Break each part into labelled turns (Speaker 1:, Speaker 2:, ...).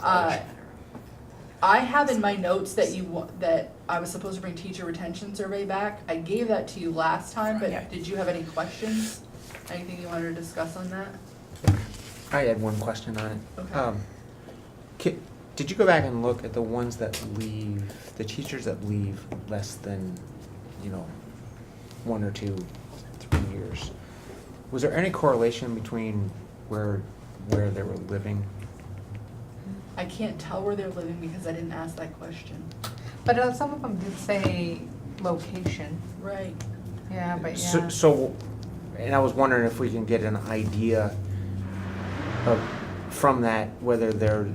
Speaker 1: Uh, I have in my notes that you, wa- that I was supposed to bring teacher retention survey back. I gave that to you last time,
Speaker 2: Yeah.
Speaker 1: but did you have any questions? Anything you wanted to discuss on that?
Speaker 2: I had one question on it.
Speaker 1: Okay.
Speaker 2: Um, ki- Did you go back and look at the ones that leave, the teachers that leave less than, you know, one or two, three years? Was there any correlation between where, where they were living?
Speaker 1: I can't tell where they're living because I didn't ask that question.
Speaker 3: But uh, some of them did say location,
Speaker 1: Right.
Speaker 3: yeah, but
Speaker 2: So-
Speaker 3: yeah.
Speaker 2: So, and I was wondering if we can get an idea of, from that, whether they're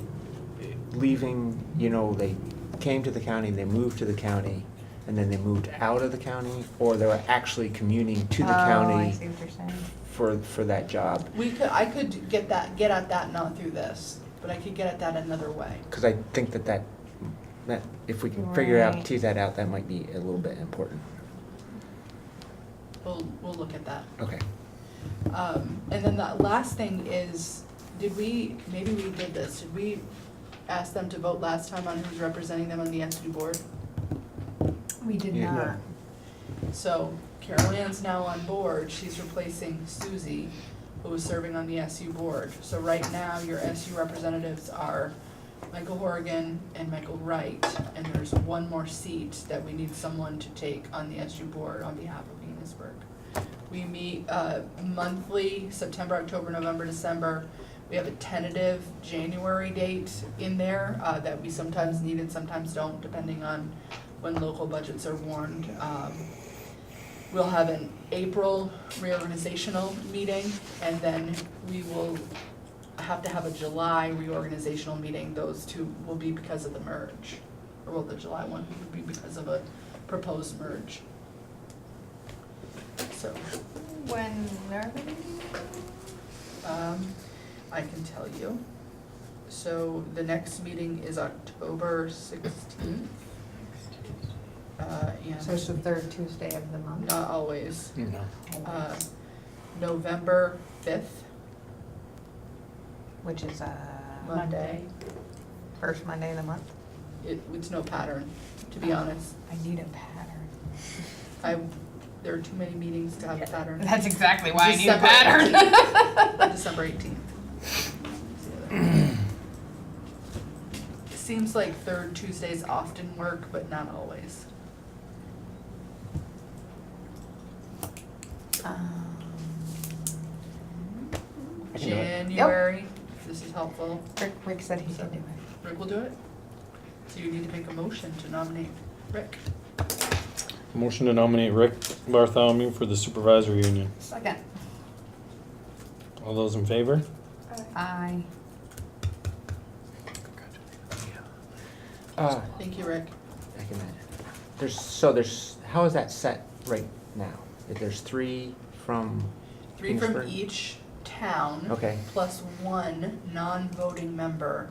Speaker 2: leaving, you know, they came to the county, they moved to the county, and then they moved out of the county, or they were actually commuting to the
Speaker 3: Oh, I see
Speaker 2: county
Speaker 3: what you're saying.
Speaker 2: for, for that job.
Speaker 1: We could, I could get that, get at that not through this, but I could get at that another way.
Speaker 2: Because I think that that, that, if we can figure out,
Speaker 3: Right.
Speaker 2: tease that out, that might be a little bit important.
Speaker 1: We'll, we'll look at that.
Speaker 2: Okay.
Speaker 1: Um, and then the last thing is, did we, maybe we did this, did we ask them to vote last time on who's representing them on the entity board?
Speaker 3: We did
Speaker 2: Yeah.
Speaker 3: not.
Speaker 1: So Carol Ann's now on board, she's replacing Susie, who was serving on the SU board. So right now, your SU representatives are Michael Horgan and Michael Wright, and there's one more seat that we need someone to take on the SU board on behalf of Venusburg. We meet uh, monthly, September, October, November, December. We have a tentative January date in there uh, that we sometimes need and sometimes don't, depending on when local budgets are warned. Um, We'll have an April reorganizational meeting, and then we will have to have a July reorganizational meeting. Those two will be because of the merge, or well, the July one would be because of a proposed merge. So,
Speaker 3: When, are they meeting?
Speaker 1: um, I can tell you. So the next meeting is October sixteenth. Uh,
Speaker 3: so it's the
Speaker 1: and
Speaker 3: third Tuesday of the month.
Speaker 1: not always.
Speaker 2: You know.
Speaker 1: uh, November fifth,
Speaker 3: Which is uh
Speaker 1: Monday.
Speaker 3: First Monday of the month.
Speaker 1: It, it's no pattern, to
Speaker 3: Uh-huh.
Speaker 1: be honest.
Speaker 3: I need a pattern.
Speaker 1: I, there are too many meetings to have a pattern.
Speaker 3: That's exactly why I need a
Speaker 1: December 18th.
Speaker 3: pattern.
Speaker 1: December eighteenth. Seems like third Tuesdays often work, but not always.
Speaker 3: Um,
Speaker 2: I can do it.
Speaker 1: January, this is helpful.
Speaker 3: Rick, Rick said he can do it.
Speaker 1: Rick will do it. So you need to make a motion to nominate Rick.
Speaker 4: Motion to nominate Rick Bartholomew for the supervisory union.
Speaker 3: Second.
Speaker 4: All those in favor?
Speaker 3: I,
Speaker 2: Uh,
Speaker 1: Thank you, Rick.
Speaker 2: I can imagine. There's, so there's, how is that set right now? If there's three from,
Speaker 1: Three from
Speaker 2: Kingsburg.
Speaker 1: each town.
Speaker 2: Okay.
Speaker 1: Plus one non-voting member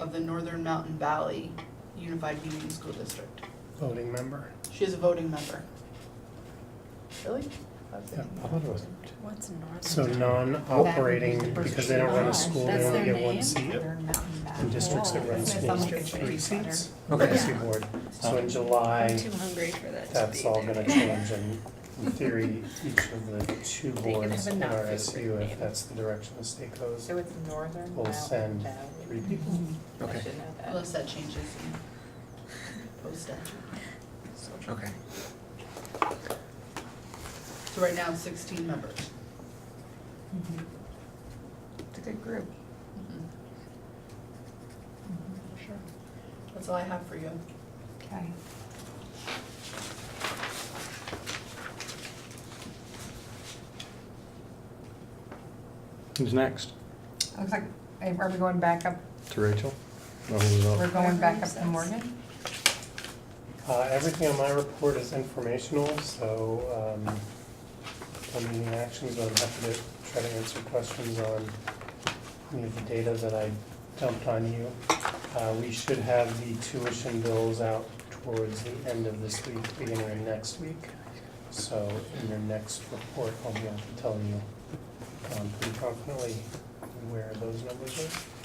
Speaker 1: of the Northern Mountain Valley Unified Union School District.
Speaker 5: voting member.
Speaker 1: She is a voting member. Really? I was
Speaker 5: Yeah.
Speaker 1: thinking-
Speaker 6: What's north?
Speaker 5: So non-operating, because they don't run a school, they only get one seat.
Speaker 3: Northern Mountain
Speaker 5: And
Speaker 3: Valley.
Speaker 5: districts that
Speaker 6: Oh.
Speaker 5: run schools get three seats. on the
Speaker 2: Okay.
Speaker 5: SU board. So in July,
Speaker 6: I'm too hungry for that to
Speaker 5: that's
Speaker 6: be
Speaker 5: all
Speaker 6: there.
Speaker 5: gonna change and in theory, each of the two
Speaker 6: They can
Speaker 5: boards
Speaker 6: have
Speaker 5: in
Speaker 6: enough
Speaker 5: our
Speaker 6: for
Speaker 5: SU,
Speaker 6: everybody.
Speaker 5: if that's the direction the state goes,
Speaker 7: So it's Northern
Speaker 5: will
Speaker 7: Mountain
Speaker 5: send
Speaker 7: Valley.
Speaker 5: three people.
Speaker 2: okay,
Speaker 7: I should know that.
Speaker 1: Unless that changes in post statute.
Speaker 2: okay.
Speaker 1: So right now, sixteen members.
Speaker 3: Mm-hmm. It's a good group.
Speaker 1: Mm-hmm. Sure. That's all I have for you.
Speaker 3: Mm-hmm. Okay.
Speaker 4: Who's next?
Speaker 3: Looks like, eh, are we going back up,
Speaker 4: To Rachel? Or Oh, who's up?
Speaker 6: Oh.
Speaker 3: we're going back up to Morgan?
Speaker 5: Uh, everything on my report is informational, so, um, on meeting actions, I'm happy to try to answer questions on any of the data that I dumped on you. Uh, we should have the tuition bills out towards the end of this week, beginning of next week. So in your next report, I'll be able to tell you, um, pretty confidently where those numbers are.